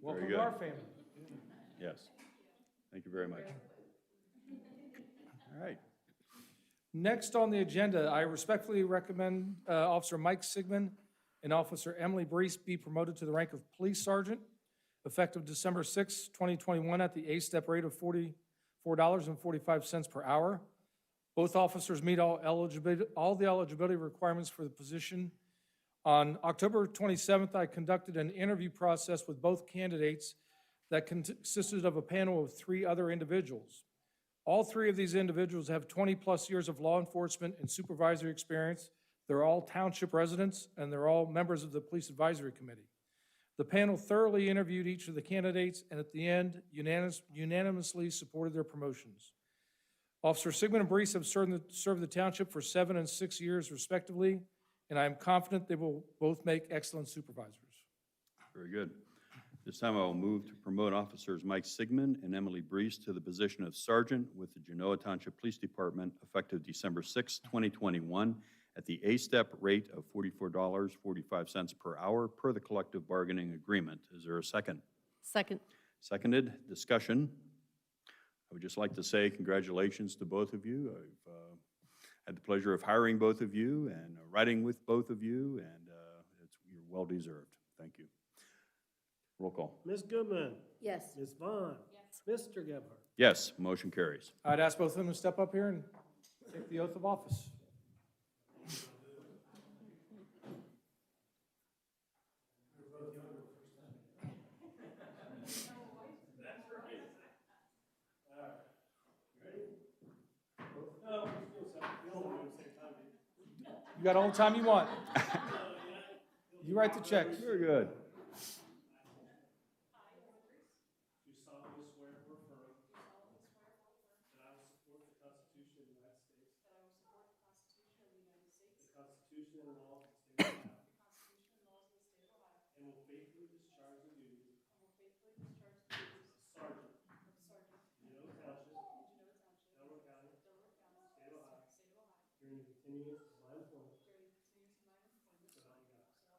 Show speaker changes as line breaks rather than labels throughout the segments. Welcome
good.
to our family.
Yes. Thank you very much. All right.
Next on the agenda, I respectfully recommend uh, Officer Mike Sigmund and Officer Emily Brees be promoted to the rank of Police Sergeant effective December 6, 2021, at the A-step rate of $44.45 per hour. Both officers meet all eligibility, all the eligibility requirements for the position. On October 27th, I conducted an interview process with both candidates that consisted of a panel of three other individuals. All three of these individuals have 20-plus years of law enforcement and supervisory experience. They're all township residents, and they're all members of the Police Advisory Committee. The panel thoroughly interviewed each of the candidates, and at the end unanimous- unanimously supported their promotions. Officer Sigmund and Brees have served the- served the township for seven and six years respectively, and I am confident they will both make excellent supervisors.
Very good. This time I will move to promote officers Mike Sigmund and Emily Brees to the position of sergeant with the Genoa Township Police Department effective December 6, 2021, at the A-step rate of $44.45 per hour per the collective bargaining agreement. Is there a second?
Second.
Seconded. Discussion. I would just like to say congratulations to both of you. I've uh, had the pleasure of hiring both of you and riding with both of you, and uh, it's, you're well-deserved. Thank you. Roll call.
Ms. Goodman,
Yes.
Ms. Vaughn. Mr. Gebhardt.
Yes, motion carries.
I'd ask both of them to step up here and take the oath of office. You got all the time you want. You write the checks.
Very good.
Do solemnly swear or affirm. That I will support the Constitution of the United States. That I will support the Constitution of the United States. The Constitution and laws of the state of Ohio. The Constitution and laws of the state of Ohio. And will faithfully discharge the duties. And will faithfully discharge the duties. Of sergeant. Of sergeant. Genoa Township. Genoa Township. Delaware County. Delaware County. State of Ohio. State of Ohio. During the continuance of my employment. During the continuance of my employment. So help me God. So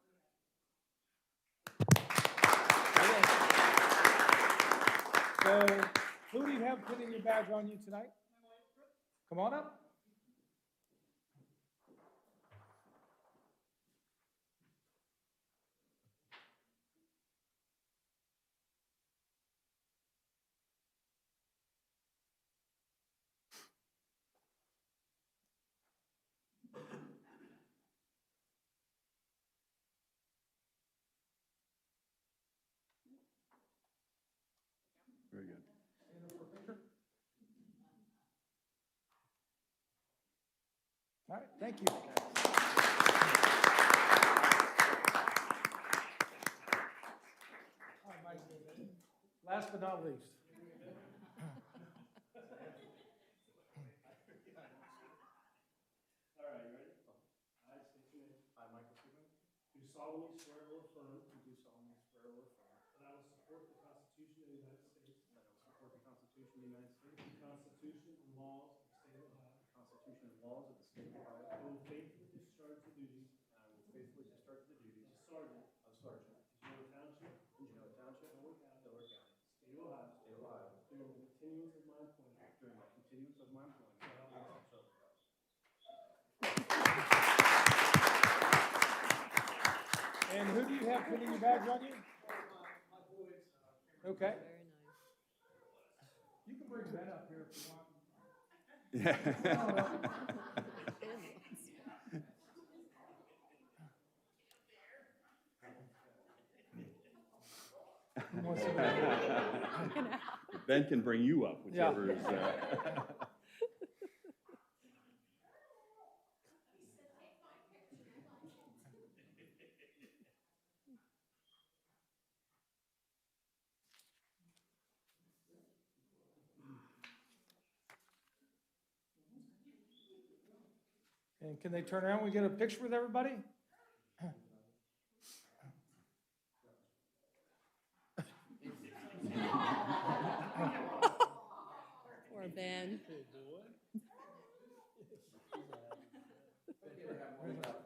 help me God.
So, who do you have putting your badge on you tonight? Come on up.
Very good.
All right, thank you. All right, Mike, Last but not least.
All right, you ready? I state your name. I, Michael Freeman. Do solemnly swear or affirm. Do solemnly swear or affirm. That I will support the Constitution of the United States. That I will support the Constitution of the United States. The Constitution and laws of the state of Ohio. The Constitution and laws of the state of Ohio. I will faithfully discharge the duties. I will faithfully discharge the duties. Of sergeant. Of sergeant. Genoa Township. Genoa Township. Delaware County. Delaware County. State of Ohio. State of Ohio. During the continuance of my employment. During the continuance of my employment. So help me God. So help me God.
And who do you have putting your badge on you? Okay. You can bring Ben up here if you want. Who wants to go?
Ben can bring you up,
Yeah.
whichever is. uh,
And can they turn around? We get a picture with everybody?
Or Ben.
Where's that?